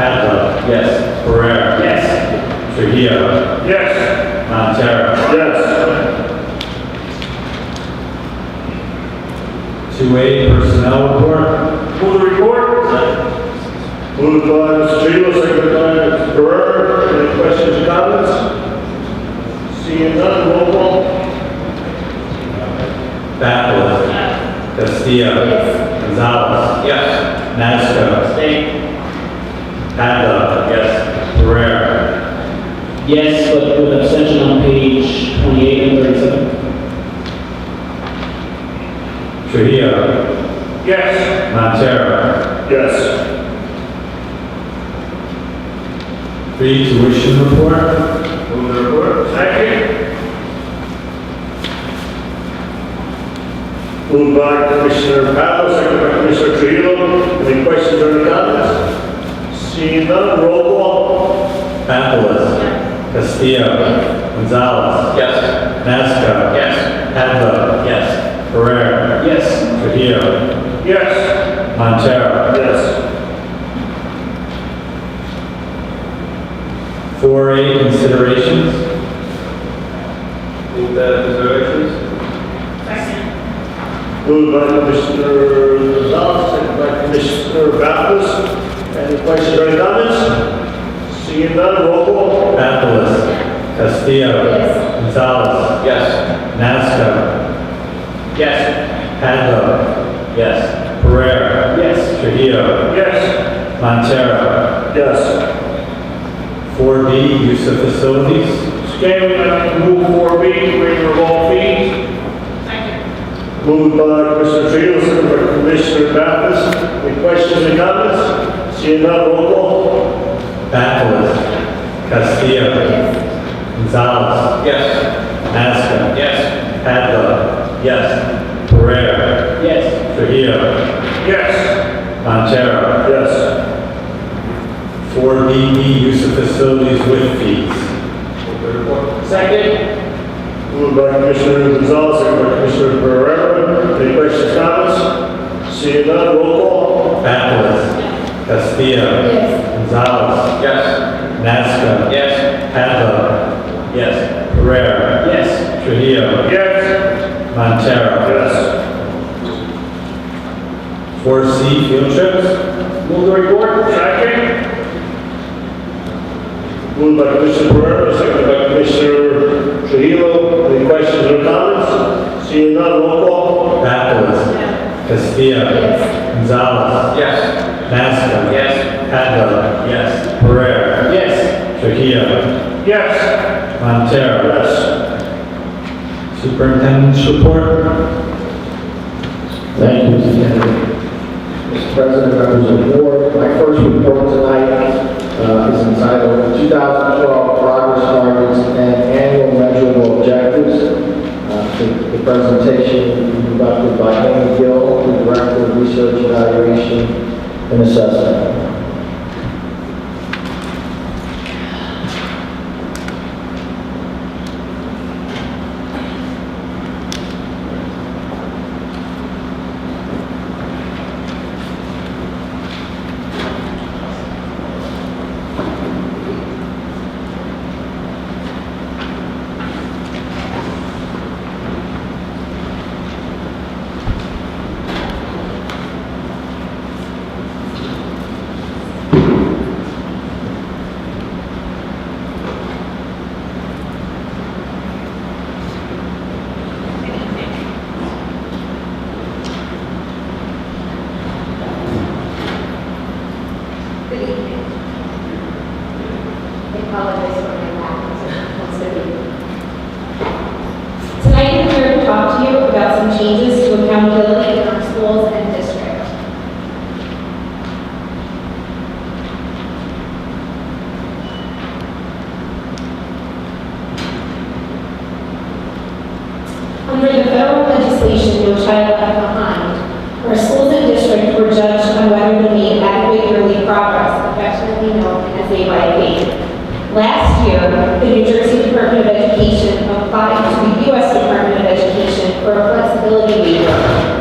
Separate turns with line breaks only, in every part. Padla.
Yes.
Pereira.
Yes.
Trujillo.
Yes.
Montero.
Yes.
Two A personnel report.
Move the report. Moved by Mr. Tridio, seconded by Mr. Ferrer. Any questions, or comments? Seeing none, roll call.
Padla. Castillo. Gonzalez.
Yes.
Masco.
Abstain.
Padla. Yes. Pereira.
Yes, but with abstention on page 28 and 37.
Trujillo.
Yes.
Montero.
Yes.
Three tuition report.
Move the report. Second. Moved by Commissioner Pavlo, seconded by Commissioner Tridio. Any questions or comments? Seeing none, roll call.
Padla. Castillo. Gonzalez.
Yes.
Masco.
Yes.
Padla.
Yes.
Pereira.
Yes.
Trujillo.
Yes.
Montero.
Yes.
Four A considerations.
Move the reservations.
Second.
Moved by Commissioner Gonzalez, second by Commissioner Bappas. Any questions or comments? Seeing none, roll call.
Bacalas. Castillo. Gonzalez.
Yes.
Masco.
Yes.
Padla.
Yes.
Pereira.
Yes.
Trujillo.
Yes.
Montero.
Yes.
4B, use of facilities.
Okay, we'd like to move four B, waiver of all fees.
Second.
Moved by Commissioner Trio, second by Commissioner Bappas. Any questions or comments? Seeing none, roll call.
Bacalas. Castillo. Gonzalez.
Yes.
Masco.
Yes.
Padla. Yes. Pereira.
Yes.
Trujillo.
Yes.
Montero.
Yes.
4B, use of facilities with fees.
Second.
Moved by Commissioner Gonzalez, second by Commissioner Pereira. Any questions, comments? Seeing none, roll call.
Bacalas. Castillo. Gonzalez.
Yes.
Masco.
Yes.
Padla.
Yes.
Pereira.
Yes.
Trujillo.
Yes.
Montero.
Yes.
Four C field trips.
Move the report.
Second. Moved by Commissioner Pereira, second by Commissioner Trujillo. Any questions or comments? Seeing none, roll call.
Bacalas. Castillo. Gonzalez.
Yes.
Masco.
Yes.
Padla.
Yes.
Pereira.
Yes.
Trujillo.
Yes.
Montero.
Yes.
Superintendent's report.
Thank you, Mr. Kennedy. Mr. President, members of the board, my first report tonight uh, is entitled 2012 Progress Targets and Annual Measurable Objectives. Uh, The the presentation conducted by Amy Gill, the Director of Research Evaluation and Assessment.
Good evening. I apologize for my lack Tonight, I'm here to talk to you about some changes to accountability in our schools and district. Under the federal legislation, No Child Left Behind, our schools and districts were judged on whether they made adequate early progress, affectionately known as AYP. Last year, the New Jersey Department of Education applied to the U.S. Department of Education for a flexibility waiver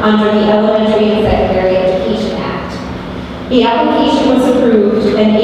under the Elementary and Secondary Education Act. The application was approved and